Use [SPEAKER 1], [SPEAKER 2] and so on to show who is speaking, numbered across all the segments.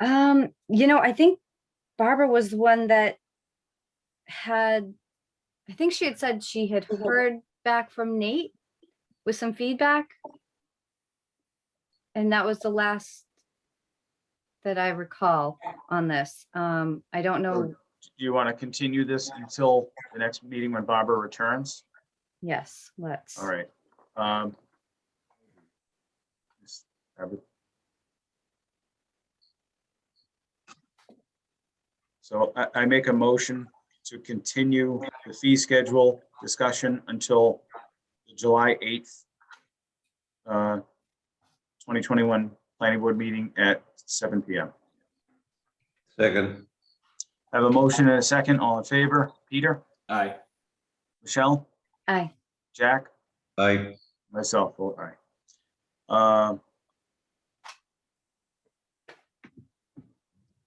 [SPEAKER 1] Um, you know, I think Barbara was the one that had, I think she had said she had
[SPEAKER 2] Mhm.
[SPEAKER 1] heard back from Nate with some feedback. And that was the last that I recall on this. Um, I don't know,
[SPEAKER 3] Sure. Do you want to continue this until the next meeting when Barbara returns?
[SPEAKER 1] yes, let's.
[SPEAKER 3] All right. um, just have it- So I, I make a motion to continue the fee schedule discussion until the July 8th, uh, 2021 Planning Board meeting at 7 PM.
[SPEAKER 4] Second,
[SPEAKER 3] I Have a motion and a second. All in favor? Peter?
[SPEAKER 5] Aye.
[SPEAKER 3] Michelle?
[SPEAKER 1] Aye,
[SPEAKER 3] Jack?
[SPEAKER 4] aye,
[SPEAKER 3] Myself, vote aye. Um,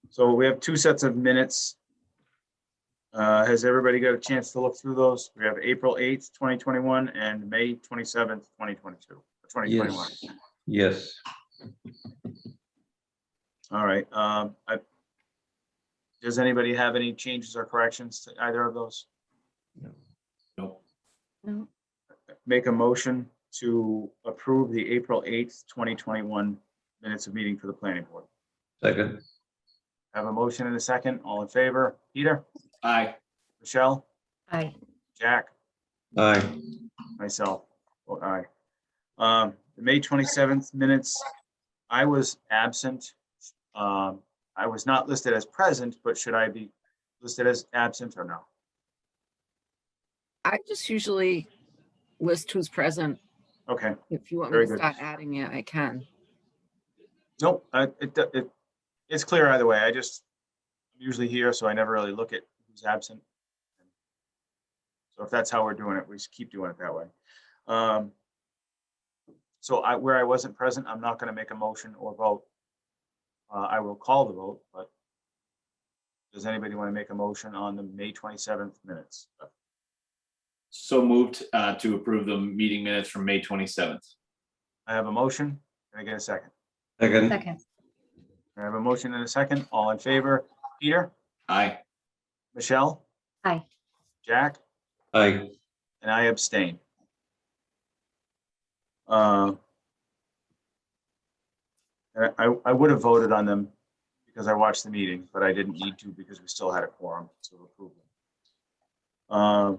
[SPEAKER 3] So we have two sets of minutes. Uh, Has everybody got a chance to look through those? We have April 8th, 2021 and May 27th, 2022, or 2021.
[SPEAKER 4] yes, yes,
[SPEAKER 3] All right. um, I- Does anybody have any changes or corrections to either of those?
[SPEAKER 5] Nope.
[SPEAKER 1] no,
[SPEAKER 3] Make a motion to approve the April 8th, 2021 minutes of meeting for the planning board.
[SPEAKER 4] second,
[SPEAKER 3] Have a motion and a second. All in favor? Peter,
[SPEAKER 5] Aye.
[SPEAKER 3] Michelle,
[SPEAKER 1] aye,
[SPEAKER 3] Jack,
[SPEAKER 4] aye,
[SPEAKER 3] myself, vote aye. Um, the May twenty-seventh minutes, I was absent. Um, I was not listed as present, but should I be listed as absent or no?
[SPEAKER 2] I just usually list who's present.
[SPEAKER 3] Okay,
[SPEAKER 2] If you want
[SPEAKER 3] Very
[SPEAKER 2] me to
[SPEAKER 3] good.
[SPEAKER 2] start adding it, I can.
[SPEAKER 3] nope, I- it, do- it, it's clear either way. I just I'm usually here, so I never really look at who's absent. So if that's how we're doing it, we just keep doing it that way. Um, So I, where I wasn't present, I'm not gonna make a motion or vote. Uh, I will call the vote, but does anybody want to make a motion on the May twenty-seventh minutes?
[SPEAKER 5] So moved uh, to approve the meeting minutes from May 27th.
[SPEAKER 3] I have a motion. Can I get a second?
[SPEAKER 4] second,
[SPEAKER 1] second,
[SPEAKER 3] I have a motion and a second. All in favor? Peter?
[SPEAKER 5] Aye.
[SPEAKER 3] Michelle?
[SPEAKER 1] Aye.
[SPEAKER 3] Jack?
[SPEAKER 4] aye,
[SPEAKER 3] And I abstain. Uh, and I, I would have voted on them because I watched the meeting, but I didn't need to because we still had a quorum to approve them. Uh,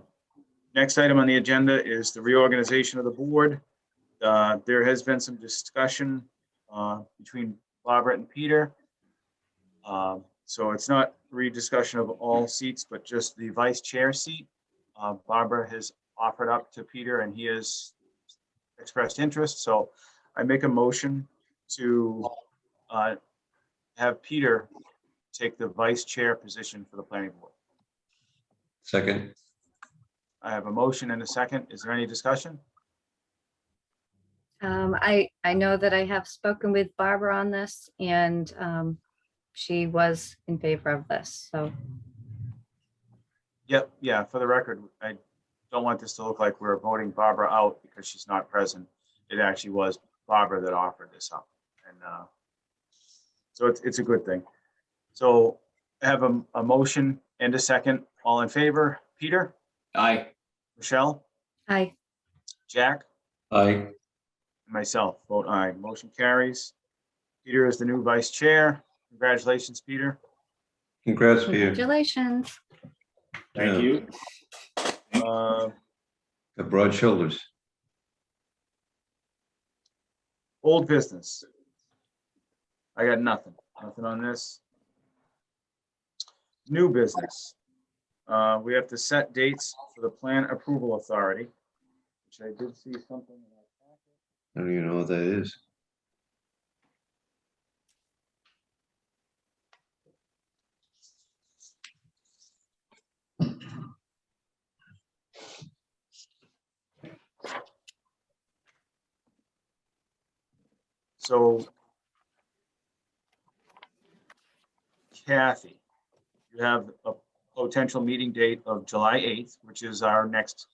[SPEAKER 3] Next item on the agenda is the reorganization of the board. Uh, There has been some discussion uh, between Barbara and Peter. Um, So it's not rediscussion of all seats, but just the vice chair seat. Uh, Barbara has offered up to Peter and he has expressed interest, so I make a motion to uh, have Peter take the vice chair position for the planning board.
[SPEAKER 4] second,
[SPEAKER 3] I have a motion and a second. Is there any discussion?
[SPEAKER 1] um, I, I know that I have spoken with Barbara on this and, um, she was in favor of this, so,
[SPEAKER 3] Yep, yeah, for the record, I don't want this to look like we're voting Barbara out because she's not present. It actually was Barbara that offered this up and uh. So it's, it's a good thing. So I have a, a motion and a second. All in favor? Peter,
[SPEAKER 5] Aye.
[SPEAKER 3] Michelle,
[SPEAKER 1] aye,
[SPEAKER 3] Jack,
[SPEAKER 4] aye,
[SPEAKER 3] and myself, vote aye. Motion carries. Peter is the new vice chair. Congratulations, Peter.
[SPEAKER 4] congrats, Peter.
[SPEAKER 1] congratulations.
[SPEAKER 4] Yeah.
[SPEAKER 5] Thank you.
[SPEAKER 3] Uh,
[SPEAKER 4] Got Broad shoulders,
[SPEAKER 3] Old business. I got nothing, nothing on this. New business. Uh, we have to set dates for the plan approval authority, which I did see something. in our packet.
[SPEAKER 4] I don't even know what that is.
[SPEAKER 3] So Kathy, you have a potential meeting date of July eighth, which is our next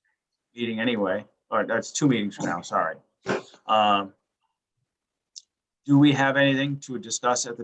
[SPEAKER 3] meeting anyway, or that's two meetings from now, sorry. Um, Do we have anything to discuss at the